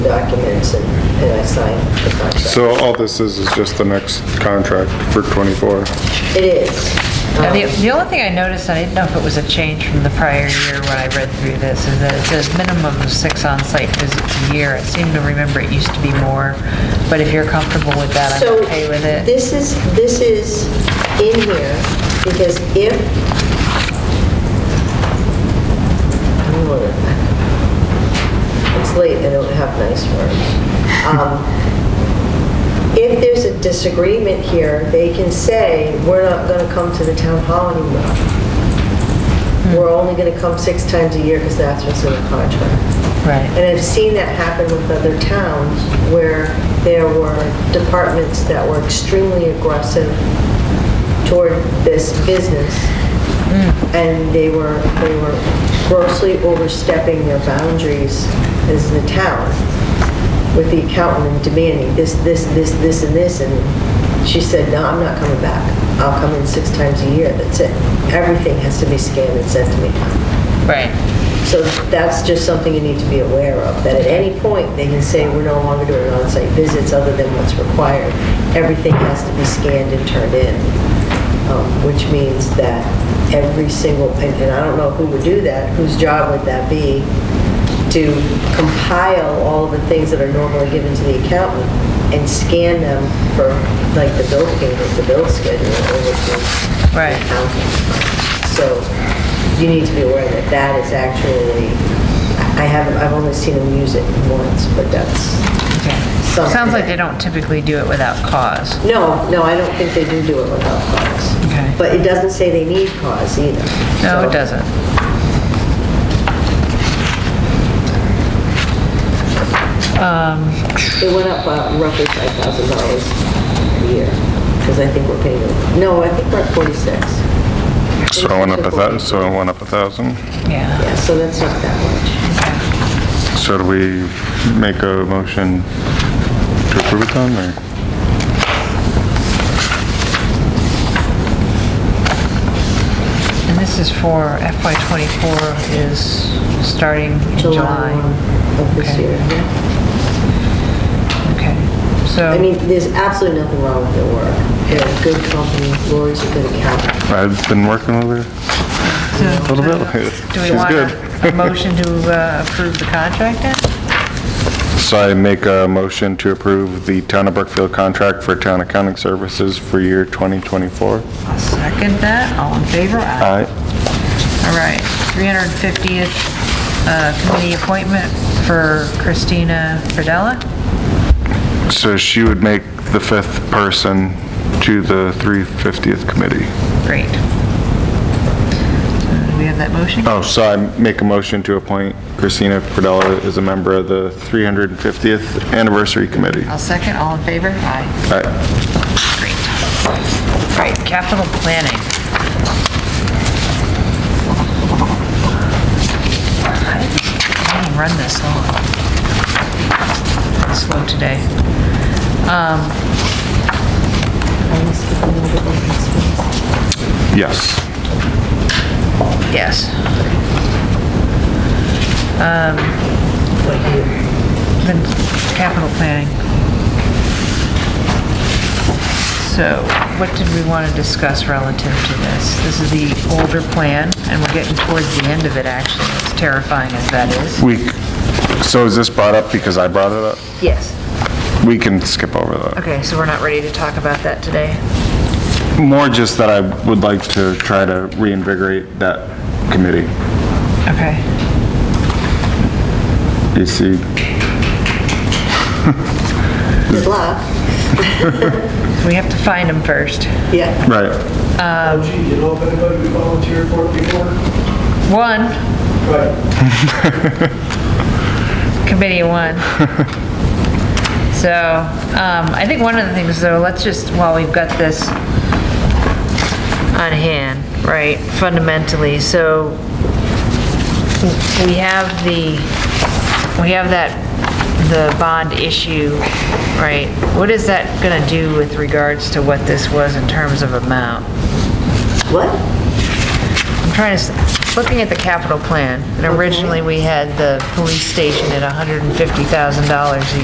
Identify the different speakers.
Speaker 1: documents and and I sign the contract.
Speaker 2: So all this is, is just the next contract for 24.
Speaker 1: It is.
Speaker 3: Now, The
Speaker 1: Um,
Speaker 3: the only thing I noticed, and I didn't know if it was a change from the prior year when I read through this, is that it says minimum of six on-site visits a year. I seem to remember it used to be more, but if you're comfortable with that,
Speaker 1: So
Speaker 3: I'm okay with it.
Speaker 1: This is, this is in here, because if... I want it. It's late, I don't have nice words. Um, If there's a disagreement here, they can say, we're not going to come to the town hall anymore. We're only going to come six times a year, because that's what's in the contract.
Speaker 3: Right,
Speaker 1: And I've seen that happen with other towns where there were departments that were extremely aggressive toward this business. And they were, they were grossly overstepping their boundaries as the town with the accountant and demanding this, this, this, this, and this. And she said, no, I'm not coming back. I'll come in six times a year. That's it. Everything has to be scanned and sent to me.
Speaker 3: right.
Speaker 1: So that's just something you need to be aware of, that at any point, they can say, we're no longer doing on-site visits other than what's required. Everything has to be scanned and turned in, um, which means that every single, and and I don't know who would do that, whose job would that be, to compile all of the things that are normally given to the accountant and scan them for, like, the bill payment, the bill schedule, or which is
Speaker 3: Right.
Speaker 1: accounting. So you need to be aware that that is actually, I haven't, I've only seen them use it once, but that's,
Speaker 3: Okay. Sounds like they don't typically do it without cause.
Speaker 1: no, no, I don't think they do do it without cause.
Speaker 3: Okay.
Speaker 1: But it doesn't say they need cause either.
Speaker 3: No,
Speaker 1: So-
Speaker 3: it doesn't. Um,
Speaker 1: It went up uh, roughly $5,000 a year, because I think we're paying, them- no, I think we're at 46.
Speaker 2: So it went up a thou, so it went up a thousand.
Speaker 3: Yeah.
Speaker 1: Yeah, so that's not that much.
Speaker 2: So do we make a motion to approve it then, or?
Speaker 3: And this is for FY '24 is starting in
Speaker 1: July
Speaker 3: July.
Speaker 1: 1 of this
Speaker 3: Okay.
Speaker 1: year. yeah.
Speaker 3: Okay,
Speaker 1: I mean,
Speaker 3: so,
Speaker 1: there's absolutely nothing wrong with their work. They're a good company, Lori's a good accountant.
Speaker 2: I've been working with her.
Speaker 3: so
Speaker 2: little bit.
Speaker 3: do we
Speaker 2: She's
Speaker 3: want a
Speaker 2: good.
Speaker 3: a motion to uh, approve the contract then?
Speaker 2: So I make a motion to approve the Town of Brookfield contract for town accounting services for year 2024.
Speaker 3: I'll second that, all in favor?
Speaker 2: Aye.
Speaker 3: Aye. All right, 350th uh, committee appointment for Christina Pradella?
Speaker 2: So she would make the fifth person to the 350th committee.
Speaker 3: Great. So Do we have that motion?
Speaker 2: Oh, so I make a motion to appoint Christina Pradella as a member of the 350th Anniversary Committee. Uh,
Speaker 3: I'll second, all in favor? Aye.
Speaker 2: Aye.
Speaker 3: Great. All right, capital planning. How did this meeting run this long? Slow today. Um,
Speaker 2: Yes.
Speaker 3: Yes. Um, The capital planning. So what did we want to discuss relative to this? This is the older plan, and we're getting towards the end of it, actually, as terrifying as that is.
Speaker 2: We, so is this brought up because I brought it up?
Speaker 3: Yes.
Speaker 2: We can skip over that.
Speaker 3: Okay, so we're not ready to talk about that today?
Speaker 2: More just that I would like to try to reinvigorate that committee.
Speaker 3: Okay.
Speaker 2: You see,
Speaker 1: Good luck.
Speaker 3: We have to find them first.
Speaker 1: Yeah,
Speaker 2: right,
Speaker 4: Oh gee, you know of anybody who volunteered for it before?
Speaker 3: One,
Speaker 4: Right.
Speaker 3: committee one. So, um, I think one of the things, though, let's just, while we've got this on hand, right, fundamentally, so we have the, we have that, the bond issue, right? What is that gonna do with regards to what this was in terms of amount?
Speaker 1: what?
Speaker 3: I'm trying to, s- looking at the capital plan, and originally we had the police station at $150,000 a